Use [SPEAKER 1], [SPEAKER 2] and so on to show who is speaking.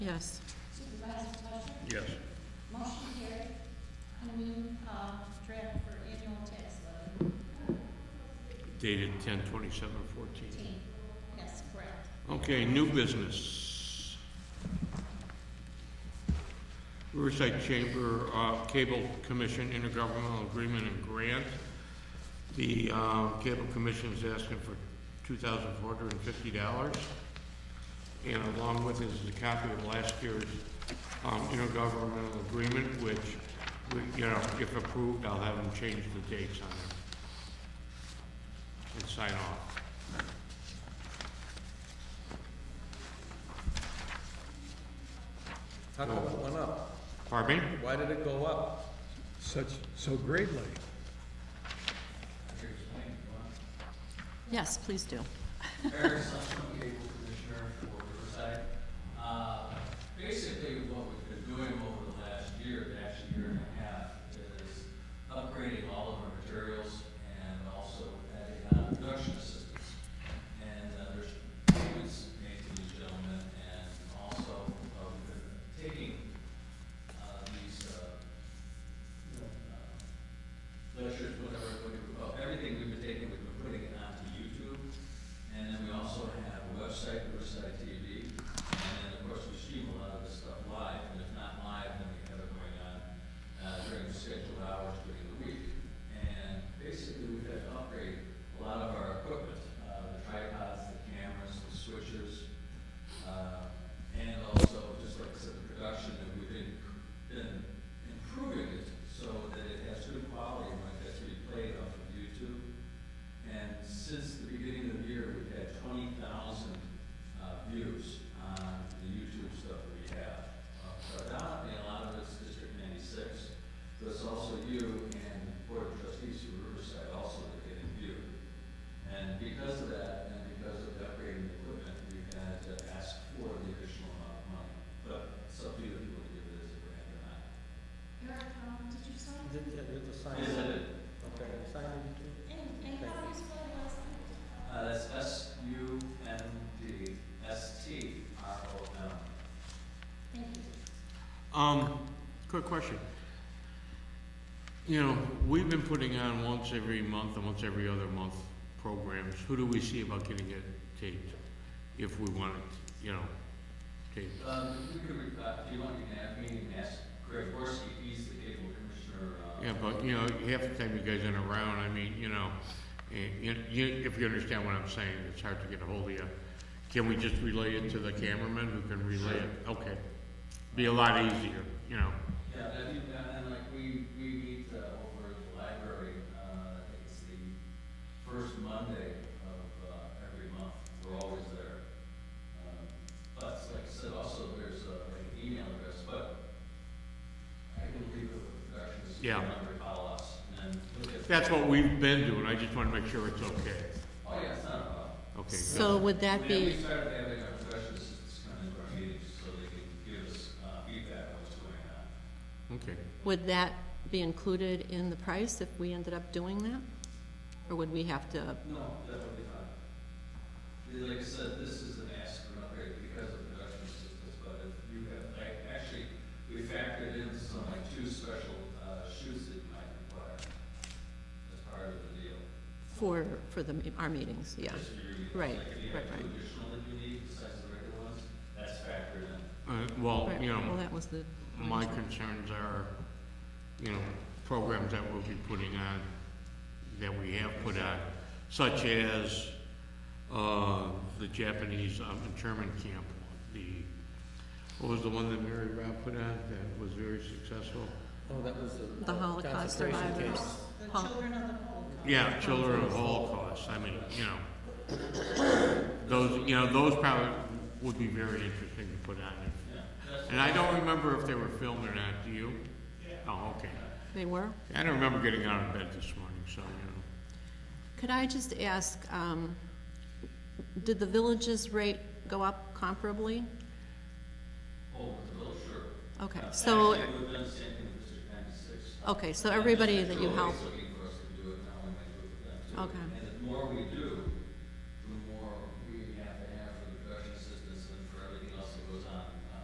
[SPEAKER 1] Yes.
[SPEAKER 2] Yes.
[SPEAKER 3] uh,
[SPEAKER 2] Dated ten twenty-seven fourteen.
[SPEAKER 3] Yes, correct.
[SPEAKER 2] Okay, new business. Riverside Chamber uh, Cable Commission Intergovernmental Agreement and Grant. The uh, Cable Commission is asking for two thousand four hundred and fifty dollars. And along with it is a copy of last year's um, intergovernmental agreement, which, we- you know, if approved, I'll have them change the dates on it. And sign off.
[SPEAKER 4] How come it went up?
[SPEAKER 2] Pardon me?
[SPEAKER 4] Why did it go up?
[SPEAKER 5] such, so greatly.
[SPEAKER 1] Yes, please do.
[SPEAKER 6] Eric Sussman, Cable Commissioner for Riverside. Uh, Basically, what we've been doing over the last year, actually year and a half, is upgrading all of our materials and also adding on production assistance. And uh, there's payments made to these gentlemen, and also uh, we've been taking uh, these uh, you know, uh, lectures, whatever, whatever, everything we've been taking, we've been putting it onto YouTube. And then we also have a website, Riverside TV, and then, of course, we stream a lot of this stuff live, and if not live, then we have it going on uh, during scheduled hours during the week. And basically, we've had to upgrade a lot of our equipment, uh, the tripods, the cameras, the switchers, uh, and also, just like I said, the production, that we've been, been improving it so that it has good quality when it gets replayed off of YouTube. And since the beginning of the year, we've had twenty thousand, uh, views on the YouTube stuff that we have. Uh, Predominantly, a lot of it's District ninety-six, but it's also you and Board of Trustees of Riverside also that get viewed. And because of that, and because of the upgrading of equipment, we've had to ask for the additional amount of money. But it's up to you if you want to give it as a grant or not.
[SPEAKER 3] Eric, um, did you sign?
[SPEAKER 4] Did, did the sign?
[SPEAKER 6] Yes, I did.
[SPEAKER 4] Okay, the sign did you do?
[SPEAKER 3] And, and how do you spell your last name?
[SPEAKER 6] Uh, that's S U N D S T R O M.
[SPEAKER 3] Thank you.
[SPEAKER 2] Um, quick question. You know, we've been putting on once every month and once every other month programs. Who do we see about getting it taped if we want it, you know, taped?
[SPEAKER 6] Um, if you could, uh, if you want, you can have me and ask Greg Horsey, he's the cable commissioner, uh.
[SPEAKER 2] Yeah, but, you know, half the time you guys aren't around, I mean, you know, eh, you, you, if you understand what I'm saying, it's hard to get a hold of you. Can we just relay it to the cameraman who can relay it? Okay. Be a lot easier, you know.
[SPEAKER 6] Yeah, that'd be, and then like we, we meet uh, over at the library, uh, I think it's the first Monday of, uh, every month, we're always there. Um, But like I said, also there's uh, an email address, but I can leave it with directions.
[SPEAKER 2] Yeah.
[SPEAKER 6] Number, follow us, and then look at.
[SPEAKER 2] That's what we've been doing, I just wanna make sure it's okay.
[SPEAKER 6] Oh, yeah, it's not a problem.
[SPEAKER 2] Okay.
[SPEAKER 1] So would that
[SPEAKER 6] Yeah,
[SPEAKER 1] be,
[SPEAKER 6] We started having our production assistants come into our meetings so they can give us uh, feedback on what's going on.
[SPEAKER 2] Okay.
[SPEAKER 1] would that be included in the price if we ended up doing that? Or would we have to,
[SPEAKER 6] No, that would be fine. Like I said, this is an ask for an upgrade because of production assistance, but if you have, like, actually, we factored in some, like, two special, uh, shoes that you might require as part of the deal.
[SPEAKER 1] for, for the, our meetings, yeah?
[SPEAKER 6] Just for your-
[SPEAKER 1] Right,
[SPEAKER 6] Like, if you
[SPEAKER 1] right,
[SPEAKER 6] have two
[SPEAKER 1] right.
[SPEAKER 6] additional that you need besides the regular ones, that's factored in.
[SPEAKER 2] Uh, well,
[SPEAKER 1] Right,
[SPEAKER 2] you
[SPEAKER 1] Well,
[SPEAKER 2] know,
[SPEAKER 1] that was the.
[SPEAKER 2] my concerns are, you know, programs that we'll be putting on, that we have put on, such as, uh, the Japanese um, internment camp, the, what was the one that Mary Rob put on that was very successful?
[SPEAKER 4] Oh, that was the.
[SPEAKER 1] The Holocaust
[SPEAKER 4] concentration
[SPEAKER 1] survivors.
[SPEAKER 4] camp.
[SPEAKER 1] Huh.
[SPEAKER 3] The children of the Holocaust.
[SPEAKER 2] Yeah, children of Holocaust, I mean, you know, those, you know, those probably would be very interesting to put on.
[SPEAKER 6] Yeah, that's,
[SPEAKER 2] And I don't remember if they were filmed or not, do you? Oh, okay.
[SPEAKER 1] They were?
[SPEAKER 2] I don't remember getting out of bed this morning, so, you
[SPEAKER 1] Could I just ask, um, did the villages rate go up comparably?
[SPEAKER 6] oh, the little shirt.
[SPEAKER 1] Okay,
[SPEAKER 6] Uh,
[SPEAKER 1] so,
[SPEAKER 6] Actually, we've done the same thing with District ninety-six.
[SPEAKER 1] okay, so everybody that you help,
[SPEAKER 6] Always looking for us to do it, now we might do it for them, too.
[SPEAKER 1] okay.